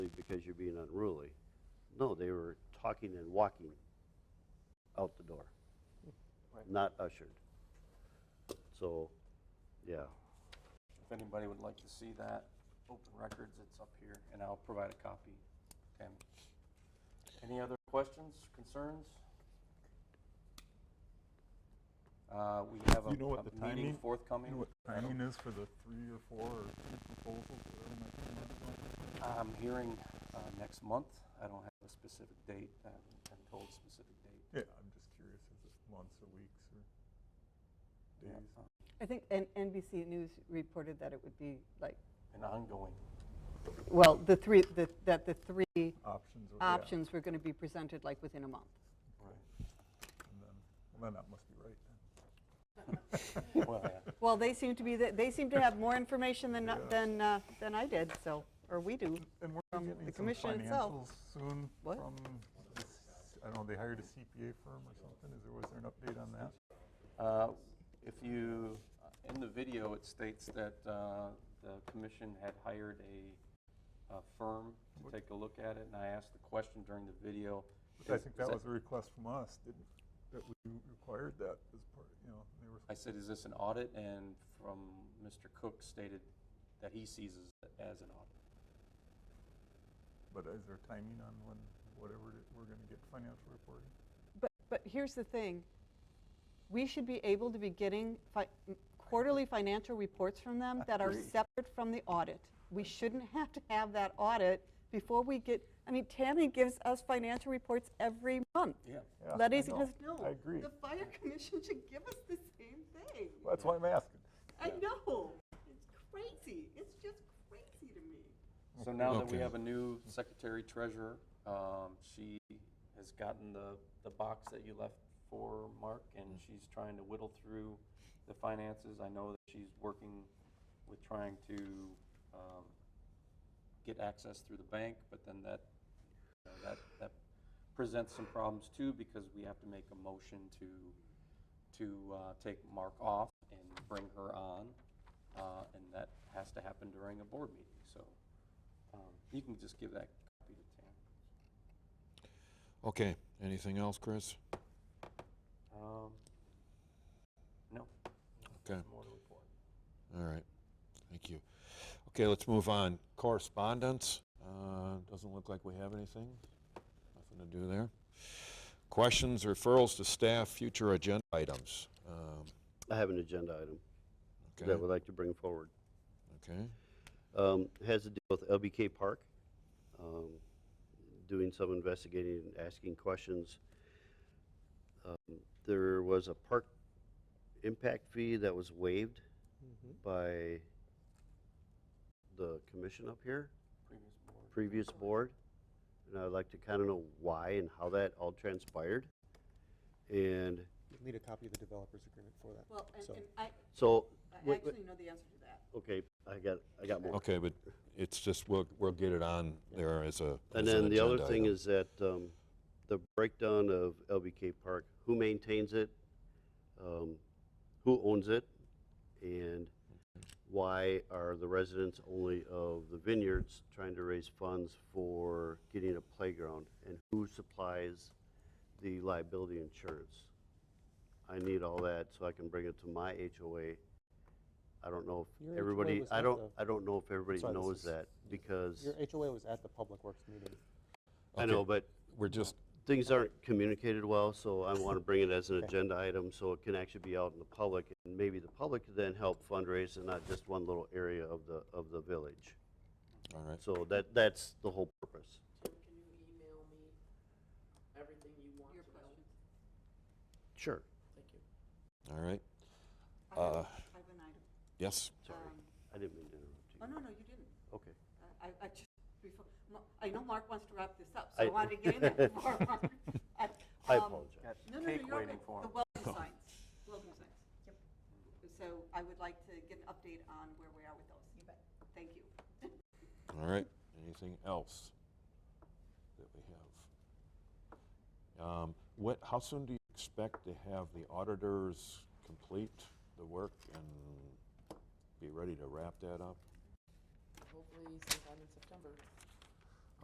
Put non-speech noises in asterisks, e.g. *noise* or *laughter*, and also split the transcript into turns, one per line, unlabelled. No, they were talking and walking out the door,
Right.
not ushered. So, yeah,
If anybody would like to see that, open records, it's up here, and I'll provide a copy. Tammy. Any other questions, concerns? Uh, We have
You know what the
a- a meeting
timing-
forthcoming.
You know what
I don't-
timing is for the three or four or proposals? or whatever might come up?
I'm hearing uh, next month. I don't have a specific date. I haven't been told a specific date.
Yeah, I'm just curious, is it months or weeks or
Yeah,
days?
uh,
I think N- NBC News reported that it would be like,
An ongoing.
well, the three, the- that the three
Options? or- yeah,
options were going to be presented like within a month.
Right.
and then- Well, then that must be right then.
Well, yeah.
Well, they seem to be, the- they seem to have more information than,
*laughs* Yeah.
than, uh, than I did, so, or we do.
And we're
From
getting
the
some
commission itself.
financials soon
What?
from, this- I don't know, they hired a CPA firm or something? Is there, was there an update on that?
Uh, If you, uh, in the video, it states that uh, the commission had hired a a firm to take a look at it, and I asked the question during the video.
Which I
is-
think
is
that was a request from us, didn't, that we required that as part, you know, they were.
I said, is this an audit? And from Mr. Cook stated that he sees it as an audit.
But is there timing on when, whatever, it- we're going to get financial reporting?
But, but here's the thing, we should be able to be getting fi- m- quarterly financial reports from them that are
Agree.
separate from the audit. We shouldn't have to have that audit before we get, I mean, Tammy gives us financial reports every month.
Yeah.
Yeah,
Letting
I know.
us know.
I agree.
The fire *laughs* commission should give us the same thing.
Well, That's why I'm asking.
I know. It's crazy. It's just crazy to me.
So now that we
Okay.
have a new secretary treasurer, um, she has gotten the, the box that you left for Mark, and she's trying to whittle through the finances. I know that she's working with trying to um, get access through the bank, but then that, you know, that, that presents some problems too, because we have to make a motion to, to uh, take Mark off and bring her on, uh, and that has to happen during a board meeting, so. Um, You can just give that copy to Tam.
Okay, anything else, Chris?
Um, No,
Okay,
more to report.
all right, thank you. Okay, let's move on. Correspondence, uh, doesn't look like we have anything, nothing to do there. Questions, referrals to staff, future agenda items. Um,
I have an agenda item
Okay,
that I would like to bring forward.
okay,
Um, has to do with LBK Park, um, doing some investigating and asking questions. Um, There was a park impact fee that was waived by the commission up here,
Previous board.
previous board. And I'd like to kind of know why and how that all transpired. And
You'll need a copy of the developer's agreement for that.
Well, and,
So-
and I,
so,
I
wait, wait,
actually know the answer to that.
okay, I got, I got more.
okay, but it's just, we'll, we'll get it on there as a.
And
as an
then the other
agenda
thing
item.
is that um, the breakdown of LBK Park, who maintains it, um, who owns it, and why are the residents only of the vineyards trying to raise funds for getting a playground? And who supplies the liability insurance? I need all that so I can bring it to my HOA. I don't know
Your
if
HOA
everybody,
was
I
at
don't,
the-
I don't know if everybody
Sorry, this
knows
is-
that because,
Your HOA was at the Public Works meeting.
I
Okay,
know, but
We're just,
things aren't communicated well, so I *laughs* want to bring it as an agenda item so it can actually be out in the public. And maybe the public could then help fundraise and not just one little area of the, of the village.
all right,
So that, that's the whole purpose.
Tim, can you email me everything you want to know?
Sure.
Thank you.
all right,
I have-
Uh,
I have an item.
yes,
Sorry,
Um,
I didn't mean to interrupt you.
Oh, no, no, you didn't.
Okay.
I, I- I just, before, Ma- I know Mark wants to wrap this up, so
I-
I wanted to get in there before
*laughs*
Mark. I
I
um,
apologize.
Got
No, no, no,
cake
you're okay.
waiting for
The
*laughs*
him.
welcome signs, welcome signs. Yep. So I would like to get an update on where we are with those. You bet. Thank you.
all right. Anything else that we have? Um, What, how soon do you expect to have the auditors complete the work and be ready to wrap that up?
Hopefully sometime in September.